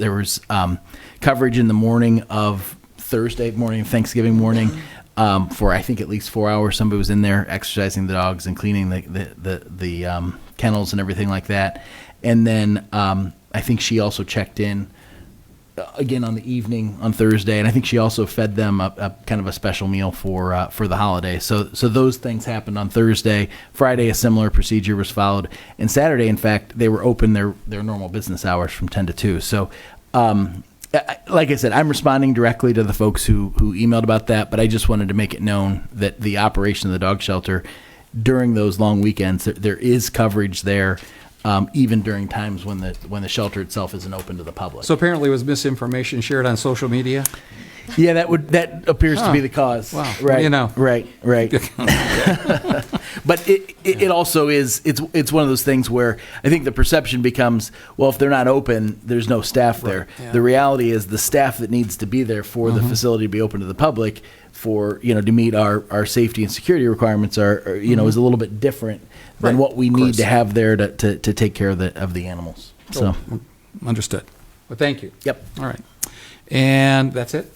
there was um, coverage in the morning of Thursday morning, Thanksgiving morning, um, for I think at least four hours. Somebody was in there exercising the dogs and cleaning the the the, the um, kennels and everything like that. And then um, I think she also checked in uh, again on the evening on Thursday, and I think she also fed them a, a kind of a special meal for uh, for the holiday. So so those things happened on Thursday. Friday, a similar procedure was followed, and Saturday, in fact, they were open their their normal business hours from ten to two. So. Um, I- I- like I said, I'm responding directly to the folks who, who emailed about that, but I just wanted to make it known that the operation of the dog shelter during those long weekends, there, there is coverage there, um, even during times when the when the shelter itself isn't open to the public. So apparently it was misinformation shared on social media? Yeah, that would that appears to Huh. be the cause. Wow. Right. You know. Right. Right. but it, it it also is it's it's one of those things where I think the perception becomes well if they're not open there's no staff there. yeah. Mm-hmm. The reality is the staff that needs to be there for the facility to be open to the public for you know to meet our our safety and security requirements are, are you know is a little bit different than Mm-hmm. Right, what we of need course. to have there to, to, to take care of the of the animals. So Understood. Well, thank you. yep. All right. And that's it?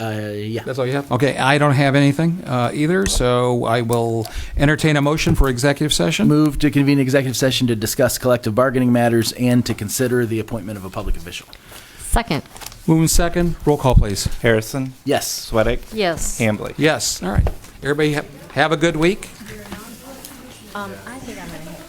Uh, yeah. That's all you have? Okay, I don't have anything uh, either, so I will entertain a motion for executive session. Move to convene executive session to discuss collective bargaining matters and to consider the appointment of a public official. Second, Move in second. Roll call, please. Harrison, Yes. Sweattick, yes. Hambley. Yes, all right. Everybody have, have a good week. Um, I think I'm gonna have